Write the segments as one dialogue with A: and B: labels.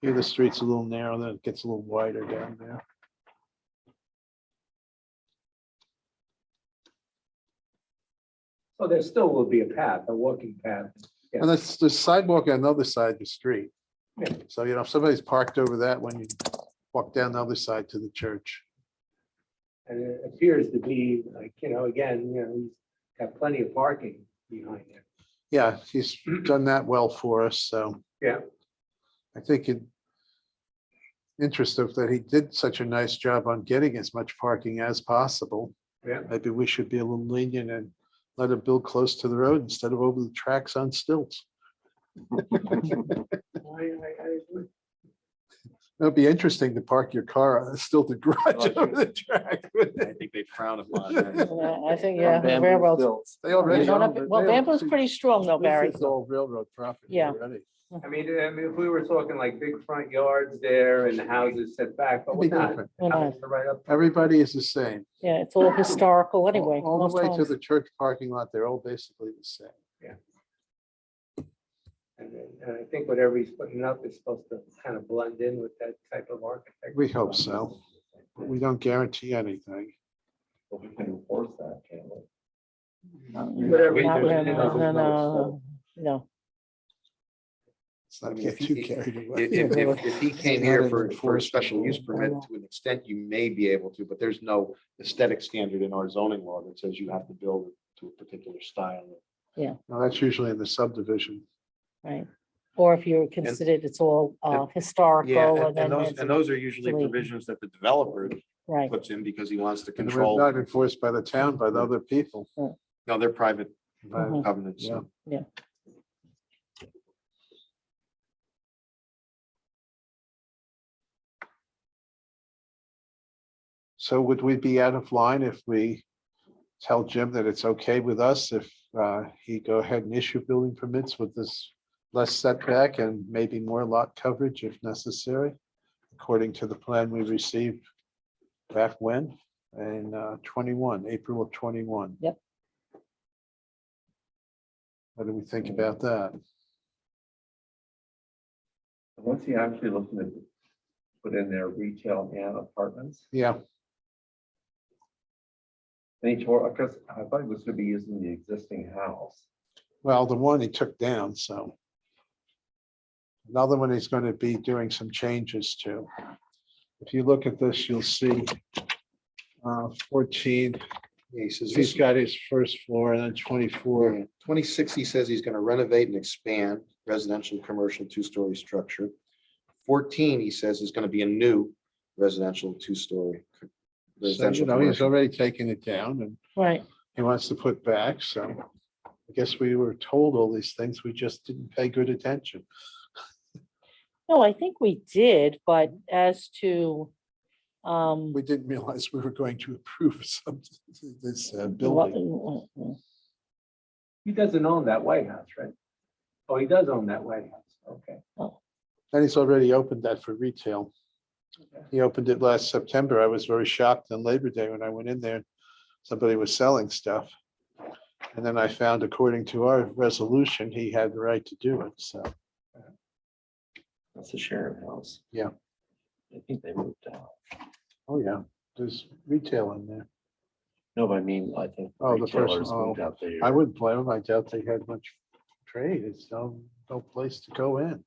A: Here, the street's a little narrow, then it gets a little wider down there.
B: So there still will be a path, a walking path.
A: And that's the sidewalk on the other side of the street.
B: Yeah.
A: So, you know, if somebody's parked over that, when you walk down the other side to the church.
B: And it appears to be like, you know, again, you know, he's got plenty of parking behind it.
A: Yeah, he's done that well for us, so.
B: Yeah.
A: I think it interesting that he did such a nice job on getting as much parking as possible.
B: Yeah.
A: Maybe we should be a little lenient and let it build close to the road instead of over the tracks on stilts.
B: I, I, I would
A: It'd be interesting to park your car on a stilted garage
C: Oh,
A: over the track. wouldn't it?
C: I think they frown upon that.
D: Yeah, I think, yeah, railroads.
A: They already.
D: Well,
A: own it. They own-
D: Bamboo's pretty strong though, Barry.
A: This is all railroad property
D: Yeah.
A: already.
B: I mean, I mean, if we were talking like big front yards there and the houses set back, but
A: It'd be
B: we're not.
A: different.
D: We're not-
B: Houses are Right up.
A: Everybody is the same.
D: Yeah, it's all historical anyway.
A: All all
D: most
A: the way to
D: times.
A: the church parking lot, they're all basically the same.
B: And then- and I think whatever he's putting up is supposed to kind of blend in with that type of architecture.
A: We hope so. But we don't guarantee anything.
C: But we can enforce that, can't we?
B: Whatever. he
D: Not
B: does,
D: when,
B: it
D: uh,
B: doesn't matter.
D: No, no, no, no.
A: Let's not
E: I mean,
A: get
E: if
A: too
E: he-
A: carried away.
E: If, if- if, if he came here for, for a
A: enforceable.
E: special use permit, to an extent, you may be able to, but there's no aesthetic standard in our zoning law that says you have to build to a particular style.
A: No, that's usually in the subdivision.
D: Right. Or if you're considered it's all uh, historical and then. it's-
C: those are usually
D: Delete.
C: provisions that the developer
D: Right,
E: Puts in because he wants to
A: And they're not enforced by the town, by the other people.
E: no, their private
A: By-
D: Mhm.
E: covenants.
A: Yeah. So would we be out of line if we tell Jim that it's okay with us if uh, he go ahead and issue building permits with this less setback and maybe more lot coverage if necessary? According to the plan we received back when, in uh, twenty-one, April of twenty-one.
D: Yep.
A: What do we think about that?
C: What's he actually looking to put in there, retail and apartments?
A: Yeah,
C: And he
B: uh,
C: tore, because I thought he was gonna be using the existing house.
A: well, the one he took down, so. Another one he's going to be doing some changes to. If you look at this, you'll see uh, fourteen,
E: He says,
A: he's got his first floor and then twenty-four.
E: Twenty-six, he says he's gonna renovate and expand residential, commercial, two-story structure. Fourteen, he says is gonna be a new residential, two-story. co-
A: So, you
E: residential
A: know, he's
E: commercial.
A: already taken it down and
D: right.
A: he wants to put back, so. I guess we were told all these things, we just didn't pay good attention.
D: No, I think we did, but as to um,
A: We didn't realize we were going to approve some, this uh,
D: what- mm,
A: building.
B: He doesn't own that White House, right? Oh, he does own that White House, okay.
A: And he's already opened that for retail. He opened it last September. I was very shocked on Labor Day when I went in there. Somebody was selling stuff. And then I found according to our resolution, he had the right to do it, so.
C: That's the sheriff house.
A: Yeah.
C: I think they moved out.
A: Oh, yeah, there's retail in there.
C: No, but I mean, I think.
A: Oh, the first-
C: retailers moved
A: oh,
C: out there.
A: I wouldn't blame him. I doubt they had much trade. It's no, no place to go in.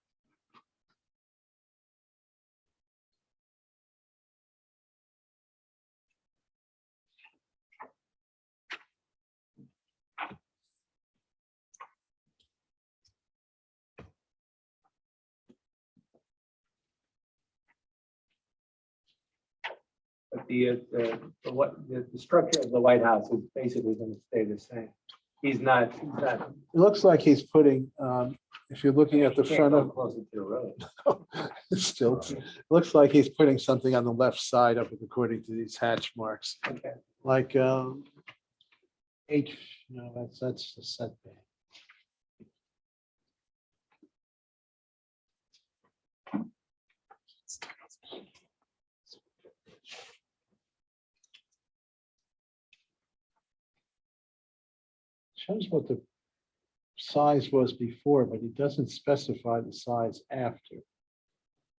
B: But the, uh, the, the what, the, the structure of the White House is basically gonna stay the same. He's not, he's not.
A: It looks like he's putting, um, if you're looking at the
B: can't
A: front
B: go
A: of,
B: Closer to the road.
A: still, looks like he's putting something on the left side of it according to these hatch marks.
B: Okay.
A: like, um, H, no, that's, that's the setback. Shows what the size was before, but it doesn't specify the size after.